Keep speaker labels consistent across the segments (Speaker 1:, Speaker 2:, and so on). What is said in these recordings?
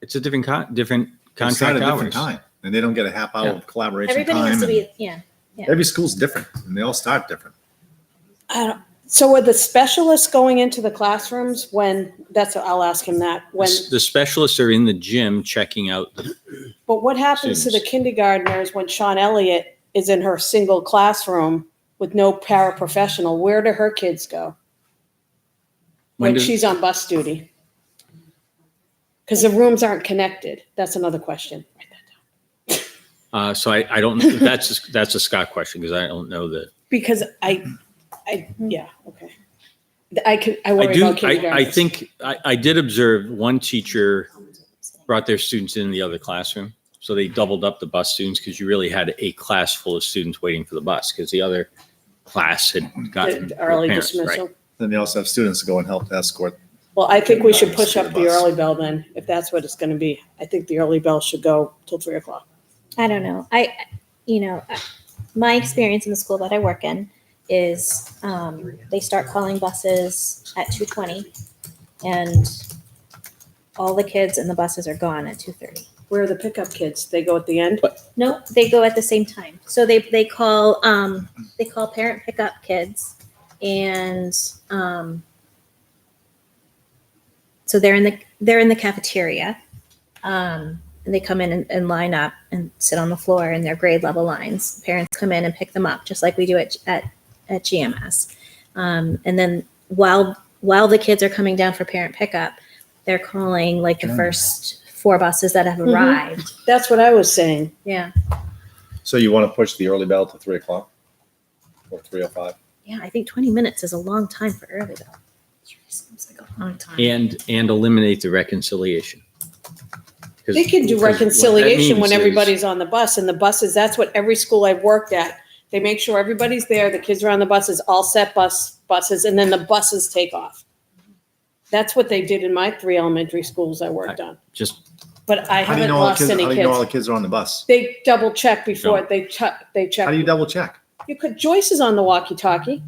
Speaker 1: It's a different con, different
Speaker 2: It's not
Speaker 1: contract
Speaker 2: a different
Speaker 1: hours.
Speaker 2: time, and they don't get a half hour of collaboration
Speaker 3: Everybody
Speaker 2: time.
Speaker 3: has to
Speaker 2: and
Speaker 3: be, yeah. yeah.
Speaker 2: every school's different, and they all start different.
Speaker 4: I don't, so are the specialists going into the classrooms when, that's, I'll ask him that,
Speaker 1: The
Speaker 4: when,
Speaker 1: s- the specialists are in the gym checking out. the-
Speaker 4: but what happens to the
Speaker 1: Students.
Speaker 4: kindergartners when Sean Elliott is in her single classroom with no paraprofessional? Where do her kids go
Speaker 1: When
Speaker 4: when
Speaker 1: does,
Speaker 4: she's on bus duty? Because the rooms aren't connected. That's another question.
Speaker 1: uh, so I, I don't, that's, a- that's a Scott question because I don't know that.
Speaker 4: Because I, I, yeah, okay. I could, I
Speaker 1: I
Speaker 4: worry
Speaker 1: do,
Speaker 4: about
Speaker 1: I, I
Speaker 4: kindergartners.
Speaker 1: think, I, I did observe one teacher brought their students in the other classroom. So they doubled up the bus students because you really had a class full of students waiting for the bus because the other class had gotten.
Speaker 4: The Early
Speaker 1: with parents, right.
Speaker 4: dismissal.
Speaker 2: Then they also have students to go and help escort.
Speaker 4: Well, I think we should
Speaker 2: Kindergarten
Speaker 4: push
Speaker 2: school
Speaker 4: up the
Speaker 2: bus.
Speaker 4: early bell then, if that's what it's gonna be. I think the early bell should go till three o'clock.
Speaker 3: I don't know. I, you know, I- my experience in the school that I work in is um, they start calling buses at two twenty, and all the kids in the buses are gone at two thirty.
Speaker 4: Where are the pickup kids? They go at the end?
Speaker 3: No, they go at the same time. So they they call um, they call parent pickup kids, and um, so they're in the they're in the cafeteria, um, and they come in and, and line up and sit on the floor in their grade level lines. Parents come in and pick them up, just like we do at at, at GMS. Um, and then while while the kids are coming down for parent pickup, they're calling like the
Speaker 2: Yeah.
Speaker 3: first four buses that have
Speaker 4: Mhm.
Speaker 3: arrived.
Speaker 4: That's what I was saying.
Speaker 3: Yeah.
Speaker 2: So you want to push the early bell to three o'clock or three o five?
Speaker 3: Yeah, I think 20 minutes is a long time for early though. Seems like a long time.
Speaker 1: And, and eliminate the reconciliation. 'Cause-
Speaker 4: They can do
Speaker 1: because what that
Speaker 4: reconciliation
Speaker 1: means
Speaker 4: when
Speaker 1: is-
Speaker 4: everybody's on the bus and the buses, that's what every school I've worked at. They make sure everybody's there, the kids are on the buses, all set bus, buses, and then the buses take off. That's what they did in my three elementary schools I worked on,
Speaker 1: Just,
Speaker 4: but
Speaker 2: How
Speaker 4: I
Speaker 2: do you
Speaker 4: haven't
Speaker 2: know all the
Speaker 4: lost
Speaker 2: kids? How
Speaker 4: any
Speaker 2: do you know all the
Speaker 4: kids.
Speaker 2: kids are on the bus?
Speaker 4: They double check before,
Speaker 1: Don't.
Speaker 4: they check, they check.
Speaker 2: How do you double check?
Speaker 4: You could, Joyce is on the walkie-talkie.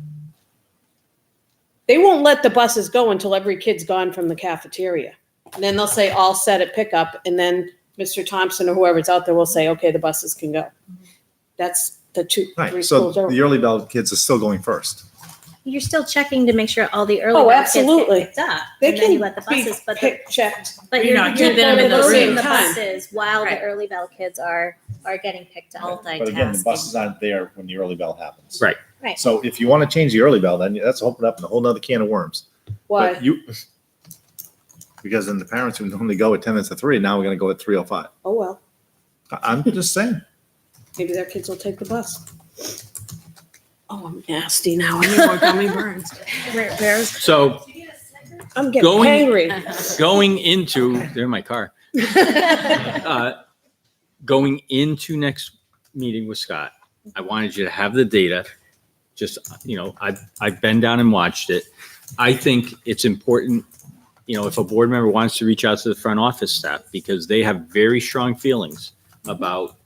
Speaker 4: They won't let the buses go until every kid's gone from the cafeteria. And then they'll say, all set at pickup, and then Mr. Thompson or whoever's out there will say, okay, the buses can go. That's the two, three
Speaker 2: Right. So
Speaker 4: schools over.
Speaker 2: the early bell kids are still going first.
Speaker 3: You're still checking to make sure all the early
Speaker 4: Oh,
Speaker 3: bird kids get
Speaker 4: absolutely.
Speaker 3: picked up,
Speaker 4: They
Speaker 3: and then you
Speaker 4: can
Speaker 3: let the
Speaker 4: be
Speaker 3: buses, but the-
Speaker 4: pick checked.
Speaker 3: but
Speaker 5: You're
Speaker 3: you're
Speaker 5: not
Speaker 3: you're
Speaker 4: keeping them in the
Speaker 3: loading
Speaker 4: room.
Speaker 3: the
Speaker 4: Time.
Speaker 3: buses while the
Speaker 4: Right.
Speaker 3: early bell kids are are getting picked up.
Speaker 2: But again, the buses aren't there when the early bell happens.
Speaker 1: Right.
Speaker 3: Right.
Speaker 2: So if you want to change the early bell, then that's opening up a whole nother can of worms. But
Speaker 4: Why?
Speaker 2: You, because then the parents who normally go at ten minutes to three, now we're gonna go at three oh five.
Speaker 4: Oh, well,
Speaker 2: I'm just saying.
Speaker 4: maybe their kids will take the bus. Oh, I'm nasty now. I need more gummy burns.
Speaker 3: Where, where's
Speaker 1: so
Speaker 4: I'm getting
Speaker 1: Going-
Speaker 4: hangry.
Speaker 1: going into, they're in my car. Uh, Going into next meeting with Scott, I wanted you to have the data. Just, you know, I've, I've been down and watched it. I think it's important, you know, if a board member wants to reach out to the front office staff because they have very strong feelings about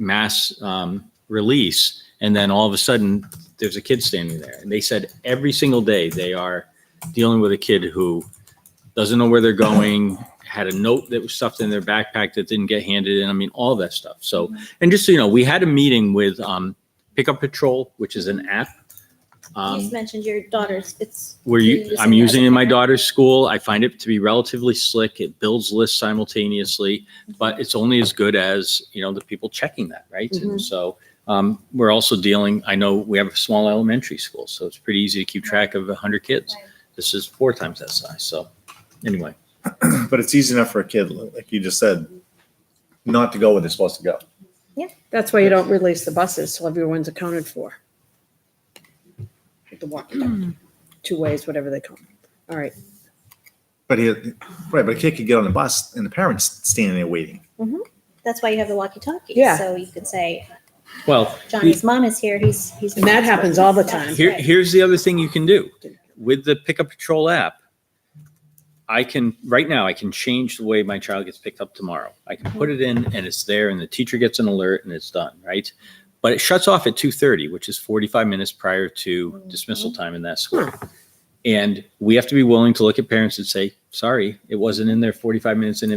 Speaker 1: mass um, release. And then all of a sudden, there's a kid standing there. And they said every single day they are dealing with a kid who doesn't know where they're going, had a note that was stuffed in their backpack that didn't get handed in. I mean, all that stuff. So, and just so you know, we had a meeting with um, Pickup Patrol, which is an app.
Speaker 3: you
Speaker 1: Um,
Speaker 3: just mentioned your daughter's. It's
Speaker 1: where
Speaker 3: You're
Speaker 1: you,
Speaker 3: using
Speaker 1: I'm
Speaker 3: it as
Speaker 1: using
Speaker 3: a
Speaker 1: it in my
Speaker 3: parent.
Speaker 1: daughter's school. I find it to be relatively slick. It builds lists simultaneously, but it's only as good as, you know, the people checking that, right?
Speaker 3: Mm-hmm.
Speaker 1: And so um, we're also dealing, I know we have a small elementary school, so it's pretty easy to keep track of 100 kids.
Speaker 3: Right.
Speaker 1: This is four times that size. So anyway,
Speaker 2: But it's easy enough for a kid, like you just said, not to go where they're supposed to go.
Speaker 4: That's why you don't release the buses till everyone's accounted for. With the walkie-talkie, two ways, whatever they call it. All right.
Speaker 2: But he, right, but a kid could get on the bus and the parents standing there waiting.
Speaker 3: that's why you have the walkie-talkie.
Speaker 4: Yeah.
Speaker 3: So you could say
Speaker 1: well,
Speaker 3: Johnny's mom is here. He's he's.
Speaker 4: And that happens all the time.
Speaker 1: here, here's the other thing you can do with the Pickup Patrol app. I can, right now, I can change the way my child gets picked up tomorrow. I can put it in and it's there and the teacher gets an alert and it's done, right? But it shuts off at two thirty, which is forty-five minutes prior to dismissal time in that school. And we have to be willing to look at parents and say, sorry, it wasn't in there forty-five minutes in